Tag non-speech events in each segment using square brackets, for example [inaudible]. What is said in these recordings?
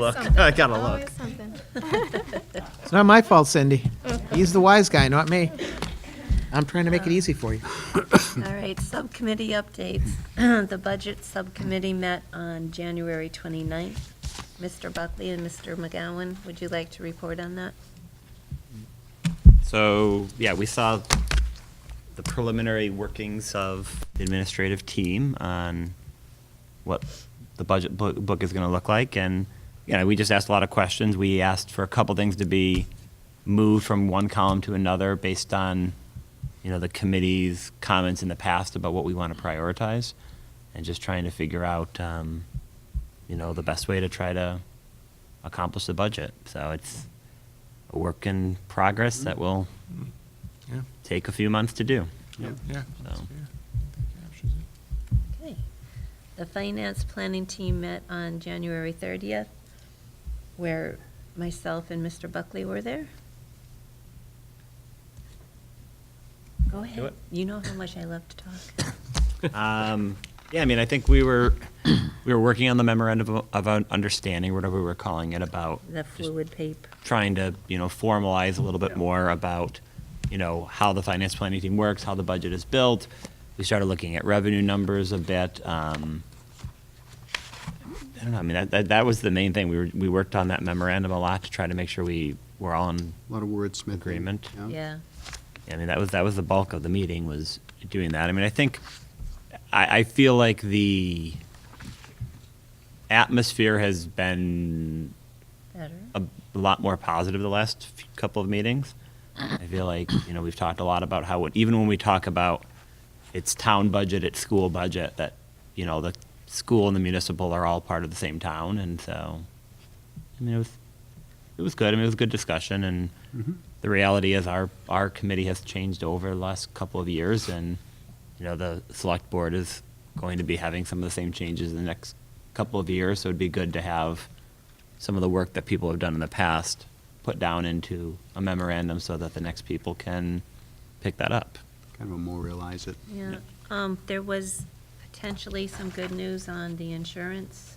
look. [laughs] Something. I gotta Always look. something. It's not my fault, Cindy. [laughs] He's the wise guy, not me. I'm trying to make it easy for you. All right, subcommittee updates. [clears throat] The Budget Subcommittee met on January 29th. Mr. Buckley and Mr. McGowan, would you like to report on that? So, yeah, we saw the preliminary workings of the administrative team on what the budget book, book is going to look like. And, you know, we just asked a lot of questions. We asked for a couple things to be moved from one column to another based on, you know, the committee's comments in the past about what we want to prioritize and just trying to figure out, um, you know, the best way to try to accomplish the budget. So it's a work in progress that will Yeah. take a few months to do. Yeah. So. Okay. The Finance Planning Team met on January 30th, where myself and Mr. Buckley were there. Go ahead. it. You know how much I love to talk. Um, yeah, I mean, I think we were [clears throat] we were working on the memorandum of, of un- understanding, whatever we were calling it, about The just fluid paper. trying to you know formalize a little bit more about you know how the finance planning team works, how the budget is built. We started looking at revenue numbers a bit. Um, I don't know. I mean, that, that that was the main thing. We were we worked on that memorandum a lot to try to make sure we were all in A lot of wordsmithing. Agreement. Yeah. I mean, that was that was the bulk of the meeting was doing that. I mean, I think I, I feel like the atmosphere has been Better. a lot more positive the last f- couple of meetings. I feel like you know we've talked a lot about how it, even when we talk about it's town budget, it's school budget, that you know the school and the municipal are all part of the same town, and so I mean it was it was good. I mean it was a good discussion, and the reality is our our committee has changed over the last couple of years, and you know the select board is going to be having some of the same changes in the next couple of years, so it'd be good to have some of the work that people have done in the past put down into a memorandum so that the next people can pick that up. Kind of memorialize it. Yeah, um, there was potentially some good news on the insurance,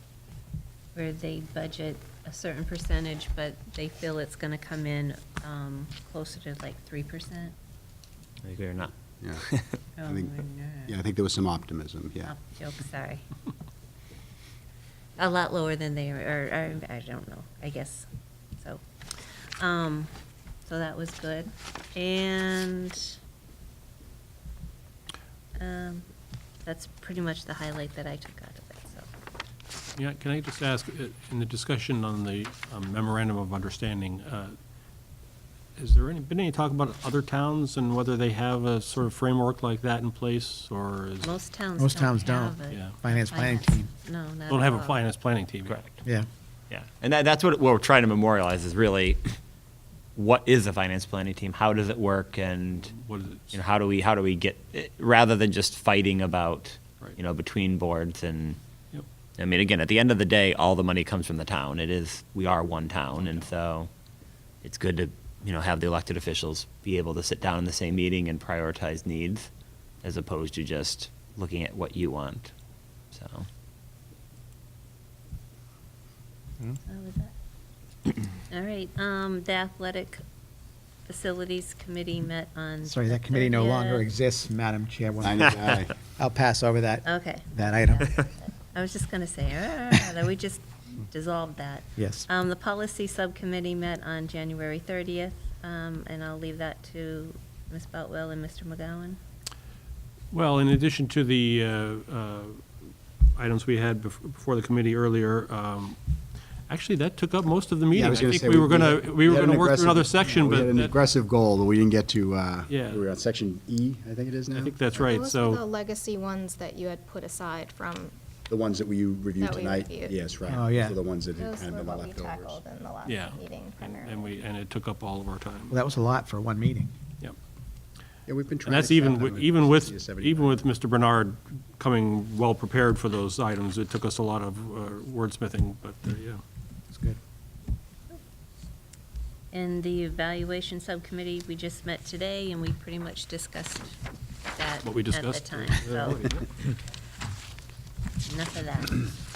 where they budget a certain percentage, but they feel it's gonna come in, um, closer to like three percent. Oh, I agree or not? Yeah. I think, yeah, I think there was some optimism, yeah. Joke, sorry. A lot lower than they, or, or, I don't know, I guess, so. Um, so that was good, and, um, that's pretty much the highlight that I took out of it, so. Yeah, can I just ask, uh, in the discussion on the um, memorandum of understanding, uh, has there any, been any talk about other towns and whether they have a sort of framework like that in place, or is, Most towns Most don't towns don't. have a Yeah. Finance planning team. No, uh, not don't have a at all. finance planning team? Correct. Yeah. [laughs] Yeah. And that, that's what, what we're trying to memorialize is really what is a finance planning team? How does it work? And What is it? you know, how do we, how do we get, eh, rather than just fighting about, Right. you know, between boards and, Yep. I mean, again, at the end of the day, all the money comes from the town. It is, we are one town, and so it's good to, you know, have the elected officials be able to sit down in the same meeting and prioritize needs as opposed to just looking at what you want, so. How was [clears throat] that? All right, um, the athletic facilities committee met on. Sorry, the that committee no longer 30th. exists, Madam Chair. [laughs] I know, I- uh, I'll pass over that, Okay, that item. I was just gonna say, ah, that we just dissolved that. Yes. Um, the policy subcommittee met on January thirtieth, um, and I'll leave that to Ms. Boutwell and Mr. McGowan. Well, in addition to the uh, uh, items we had bef- before the committee earlier, um, actually, that took up most of the meeting. Yeah, I was gonna say. think we were gonna, had- we were had an gonna work through another aggressive- section, We but had an that- aggressive goal that we didn't get to, uh, we Yeah. were on section E, I think it is now? I think that's right, Those were the so, legacy ones that you had put aside from, The ones that we you reviewed That we tonight? reviewed. Yes, right. Oh, yeah. So the ones that had those kind of were been the what we leftovers. tackled in the last yeah. meeting And- primarily. And we, and it took up all of our time. Well, that was a lot for one meeting. Yep. Yeah, we've been trying. And that's to even, track wi- them at even 60 to with, 70. even with Mr. Bernard coming well-prepared for those items, it took us a lot of uh, wordsmithing, but, uh, yeah. It's good. And the evaluation subcommittee, we just met today, and we pretty much discussed that What we at the [laughs] discussed. time, so. Enough of that.